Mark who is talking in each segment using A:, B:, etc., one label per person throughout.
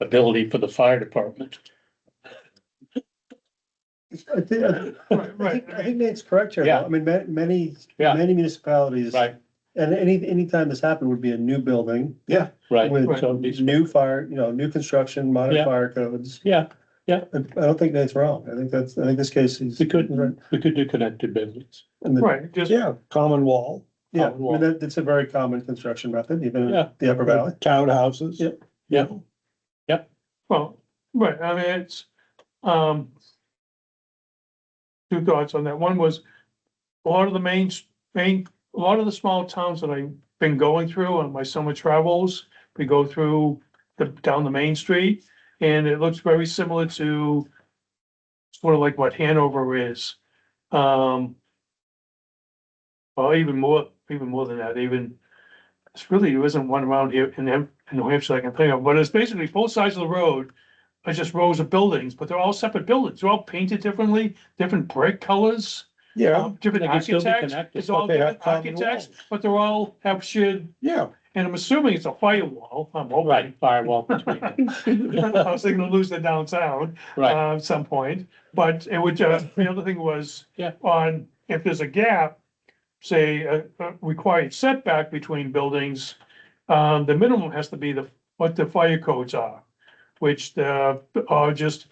A: ability for the fire department.
B: I think, I
C: Right, right.
B: think,
C: I
B: I
C: mean,
B: think Nate's correct here. though.
A: Yeah.
B: I mean, ma- many,
A: Yeah.
B: many municipalities.
A: Right.
B: And any, anytime this happened would be a new building. Yeah.
A: Right.
B: With
C: Right.
A: So these-
B: new fire, you know, new construction,
A: Yeah.
B: modern fire codes.
A: Yeah,
B: I I don't think Nate's wrong. I think that's, I think this case is.
A: we could,
B: Right.
A: we could do connected buildings.
B: And the-
C: Right, just,
D: Yeah, common wall,
B: Yeah, I
A: Common wall.
B: mean, that, that's a very common construction method, even in
A: Yeah.
B: the Upper Valley.
D: townhouses.
B: Yeah.
A: Yeah.
C: well, right, I mean, it's, um. Two thoughts on that. One was, a lot of the main, main, a lot of the small towns that I've been going through on my summer travels, we go through the, down the main street, and it looks very similar to sort of like what Hanover is. Um, well, even more, even more than that, even, it's really, there isn't one around here in, Hem- in New Hampshire I can think of, but it's basically both sides of the road are just rows of buildings, but they're all separate buildings. They're all painted differently, different brick colors,
D: Yeah,
C: um, different
A: They can still be
C: architects.
A: connected.
C: It's all
D: But they have
C: different
D: common
C: architects,
D: walls.
C: but they're all have shared,
D: yeah,
C: and I'm assuming it's a firewall. I'm hoping.
A: Right, firewall between them.
C: I was thinking of losing it downtown
A: Right,
C: uh, at some point, but it would just, the other thing was.
A: Yeah.
C: On, if there's a gap, say, a, a required setback between buildings, um, the minimum has to be the, what the fire codes are. Which, uh, are just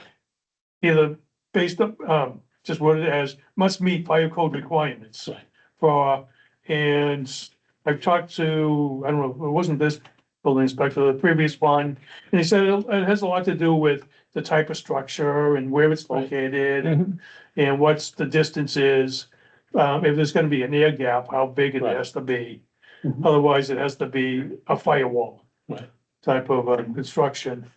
C: either based on, um, just what it has, must meet fire code requirements.
A: Right.
C: For, and I've talked to, I don't know, it wasn't this building inspector, the previous one, and he said it it has a lot to do with the type of structure and where it's
A: Right. Mm-hmm.
C: located and, and what's the distance is. Um, if there's gonna be an air gap, how big it
A: Right. Mm-hmm.
C: has to be.
B: Mhm.
C: Otherwise, it has to be a firewall.
A: Right.
C: Type of, um, construction.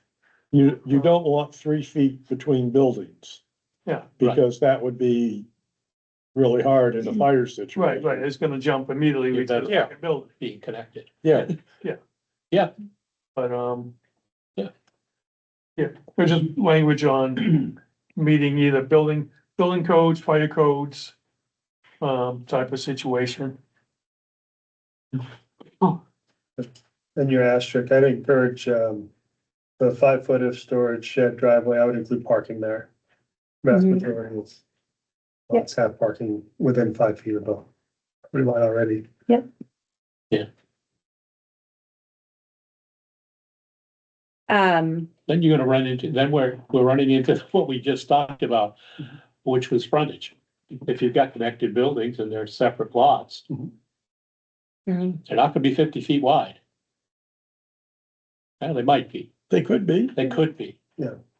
D: you, you don't want three feet between buildings.
C: Yeah.
D: Because that would be really hard
A: Mm-hmm.
D: in a fire
C: Right,
D: situation.
C: right. It's gonna jump immediately
A: You
C: into the
A: bet.
D: Yeah.
C: fucking building,
A: being connected.
D: Yeah,
C: but, um.
A: Yeah.
C: Yeah, there's just language on meeting either building, building codes, fire codes. Um, type of situation.
B: And your asterisk, I'd encourage, um, the five foot of storage shed driveway, I would include parking there. Vast
E: Mhm.
B: majority of lots have parking within five feet of the property line already.
E: Um,
A: Then you're gonna run into, then we're, we're running into what we just talked about, which was frontage. If you've got connected buildings and they're separate lots,
F: Mm-hmm.
E: Mhm.
A: they're not gonna be fifty feet wide. Well, they might be,
D: they could be.
A: they could be,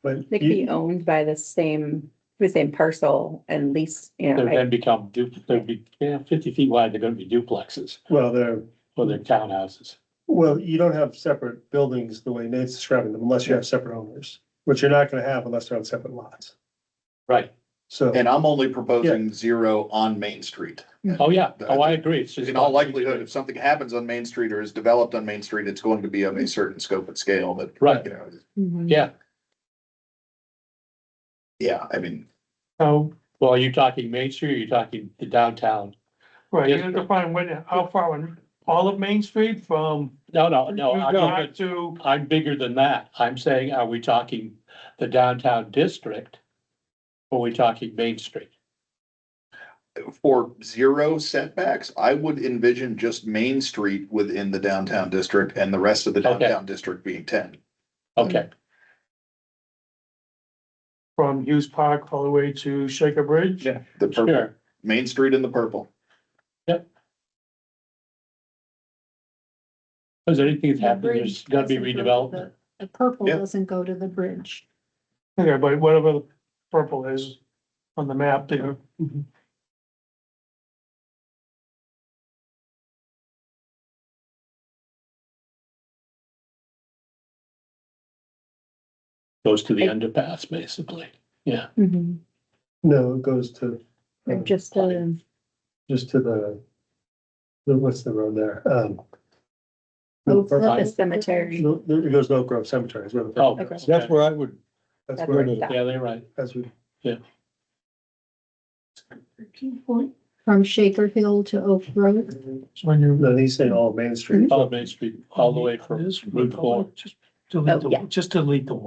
B: But
E: they could
B: you-
E: be owned by the same, the same parcel and lease, you know,
A: they'll
E: right?
A: then become du, they'll be, yeah, fifty feet wide, they're gonna be duplexes
B: well, they're,
A: or they're townhouses.
B: well, you don't have separate buildings the way Nate's describing them unless you have separate owners, which you're not gonna have unless they're on separate lots.
A: Right,
B: So.
G: And I'm only proposing zero on Main Street.
A: oh, yeah, oh, I agree, it's just.
G: In all likelihood, if something happens on Main Street or is developed on Main Street, it's going to be of a certain scope and scale, but.
A: Right.
G: You know,
F: Mm-hmm.
E: Mhm.
A: Yeah,
G: yeah, I mean,
C: How,
A: well, are you talking Main Street or are you talking the downtown?
C: Right, you
A: Yes,
C: have
A: sir.
C: to find when, how far on all of Main Street from.
A: No, no, Uh, no, I'm talking-
C: Back To,
A: I'm bigger than that. I'm saying, are we talking the downtown district? Or are we talking Main Street?
G: for zero setbacks, I would envision just Main Street within the downtown district and the rest of the
A: Okay.
G: downtown district being ten.
A: Okay,
C: from Hughes Park all the way to Shaker Bridge.
G: Yeah. The purple,
A: sure.
G: Main Street in the purple.
A: Is there anything that's
F: The
A: happened, there's
F: bridge
A: gotta be
F: doesn't go to
A: redevelopment?
F: The purple
G: Yeah.
F: doesn't go to the bridge.
C: Okay, but whatever the purple is on the map there.
A: Goes to the underpass, basically.
E: Mhm.
B: No, it goes to,
E: Or
B: um,
E: just, um,
B: just to the, the- what's the road there? Um,
F: Oak Cliff
E: Oh, the
F: is
E: cemetery.
B: no, It goes to Oak Grove Cemetery is where the.
A: Oh,
E: Okay.
D: That's
A: okay.
D: where I would,
B: That's
E: That's
B: where,
E: where
B: it
E: it
B: is.
E: stops.
A: yeah, they're right.
B: as we,
F: From Shaker Hill to Oak Road.
C: When you.
B: no, he's saying all Main Street.
A: All of Main Street, all the way from Route Four.
C: Just
E: delete the- Oh, yeah.
C: just delete the